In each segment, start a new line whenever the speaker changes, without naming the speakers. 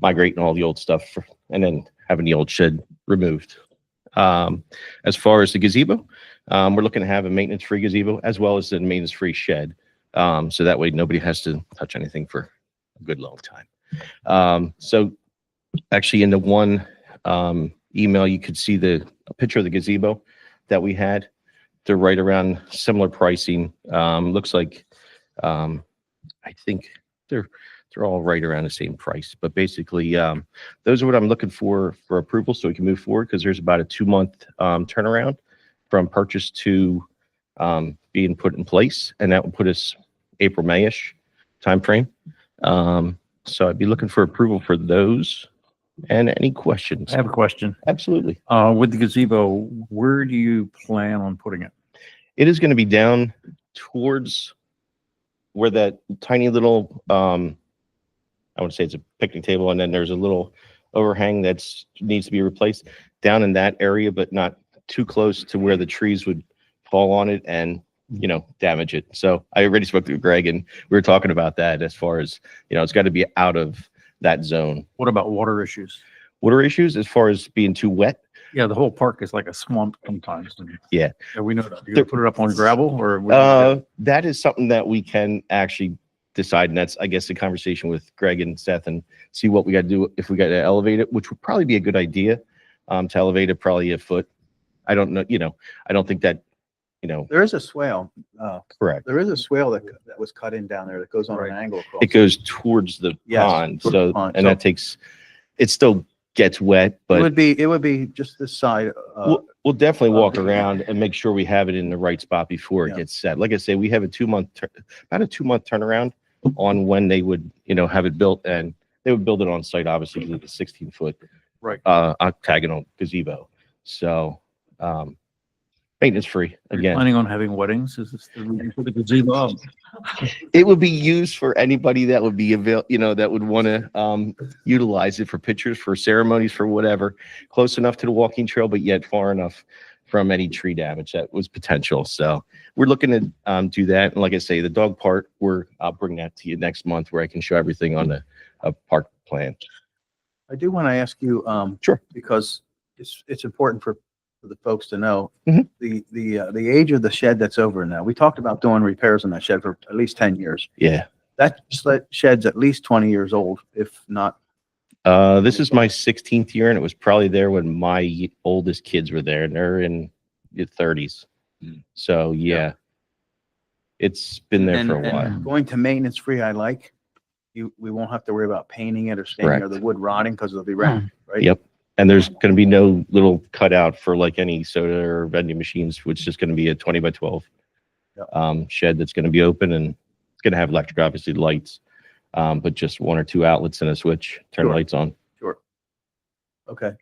migrating all the old stuff for- and then having the old shed removed. Um, as far as the gazebo, um, we're looking to have a maintenance-free gazebo as well as the maintenance-free shed. Um, so that way nobody has to touch anything for a good long time. Um, so actually in the one, um, email, you could see the a picture of the gazebo that we had. They're right around similar pricing. Um, looks like, um, I think they're, they're all right around the same price, but basically, um, those are what I'm looking for, for approval, so we can move forward, because there's about a two-month, um, turnaround from purchase to, um, being put in place, and that will put us April, May-ish timeframe. Um, so I'd be looking for approval for those. And any questions?
I have a question.
Absolutely.
Uh, with the gazebo, where do you plan on putting it?
It is going to be down towards where that tiny little, um, I would say it's a picnic table, and then there's a little overhang that's needs to be replaced down in that area, but not too close to where the trees would fall on it and, you know, damage it. So I already spoke to Greg and we were talking about that as far as, you know, it's got to be out of that zone.
What about water issues?
Water issues as far as being too wet,
Yeah, the whole park is like a swamp sometimes. and-
Yeah.
we know that. You
There-
gonna put it up on gravel or? what do you
Uh,
do?
that is something that we can actually decide, and that's, I guess, the conversation with Greg and Seth and see what we gotta do, if we gotta elevate it, which would probably be a good idea, um, to elevate it probably a foot. I don't know, you know, I don't think that, you know,
There is a swale, uh,
correct.
there is a swale that, that was cut in down there that goes on
Right.
an angle across.
It goes towards the
Yes,
pond,
towards the
so,
pond,
and
so-
that takes, it still gets wet,
It
but
would be, it would be just this side, uh,
we'll, we'll definitely walk
uh,
around and make sure we have it in the right spot before it
Yeah.
gets set. Like I say, we have a two month, tur- about a two month turnaround on when they would, you know, have it built and they would build it on site, obviously, because it's a sixteen foot.
Right.
Uh, octagonal gazebo. So, um, maintenance free
Are you
again.
Planning on having weddings? Is this the reason for the gazebo? Oh, up?
It would be used for anybody that would be avail, you know, that would want to, um, utilize it for pictures, for ceremonies, for whatever. Close enough to the walking trail, but yet far enough from any tree damage that was potential. So we're looking to, um, do that. And like I say, the dog part, we're, I'll bring that to you next month where I can show everything on the, uh, park plan.
I do want to ask you, um.
Sure.
Because it's, it's important for, for the folks to know.
Mhm.
The, the, uh, the age of the shed that's over now. We talked about doing repairs on that shed for at least ten years.
Yeah.
That sled- shed's at least twenty years old, if not,
Uh, this is my 16th year and it was probably there when my oldest kids were there and they're in their 30s.
Hmm.
So yeah. It's been there
And-
for a
and-
while.
going to maintenance free, I like. You, we won't have to worry about painting it or staining or
Correct. Hmm.
the wood rotting because it'll be wrapped, right?
Yep. And there's going to be no little cutout for like any soda or vending machines, which is just going to be a 20 by 12
Yep.
um, shed that's going to be open and it's going to have electric, obviously lights, um, but just one or two outlets and a switch, turn
Sure.
lights on.
Okay.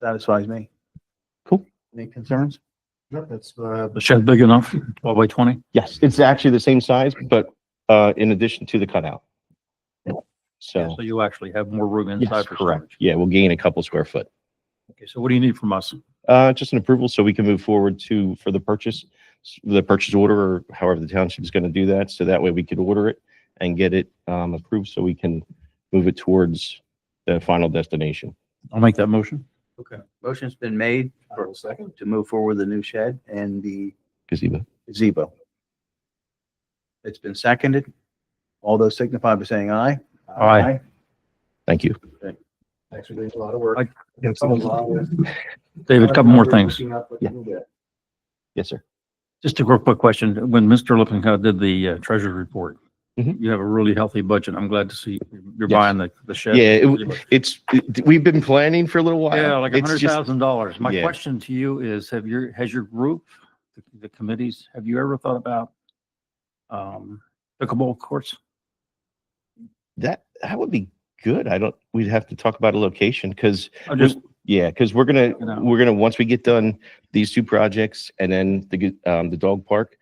Satisfies me.
Cool.
Any concerns?
No, that's, uh,
The shed big enough, twelve by twenty?
Yes, it's actually the same size, but uh, in addition to the cutout. So,
So you actually have more room
yes,
inside for
correct.
storage.
Yeah, we'll gain a couple square foot.
Okay, so what do you need from us?
Uh, just an approval so we can move forward to, for the purchase, the purchase order, or however the township is going to do that. So that way we could order it and get it, um, approved so we can move it towards the final destination.
I'll make that motion.
Okay. Motion's been made for second to move forward the new shed and the
Gazebo.
gazebo. It's been seconded. All those signify by saying aye.
Aye.
Thank you.
actually doing a lot of work.
I-
It's a lot of-
Uh,
David, a couple more things.
Keeping up with
Yeah.
you there.
Yes, sir.
Just a real quick question. When Mr. Lippincott did the uh, treasurer's report,
Mhm.
you have a really healthy budget. I'm glad to see you're
Yes.
buying the, the shed.
Yeah, it w- it's, it- we've been planning for a little while.
Yeah, like a
It's
hundred
just-
thousand dollars. My
Yeah.
question to you is, have your, has your group, the- the committees, have you ever thought about um, pickleball courts?
That, that would be good. I don't, we'd have to talk about a location because
I just,
Yeah, because we're gonna,
You know.
we're gonna, once we get done these two projects and then the, g- um, the dog park,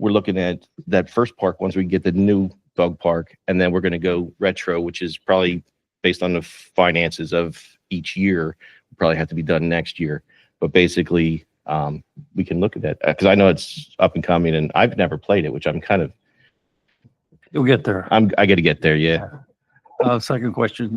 we're looking at that first park, once we get the new dog park, and then we're gonna go retro, which is probably based on the finances of each year, probably have to be done next year. But basically, um, we can look at that, because I know it's up and coming and I've never played it, which I'm kind of,
you'll get there.
I'm, I gotta get there, yeah.
Uh, second question,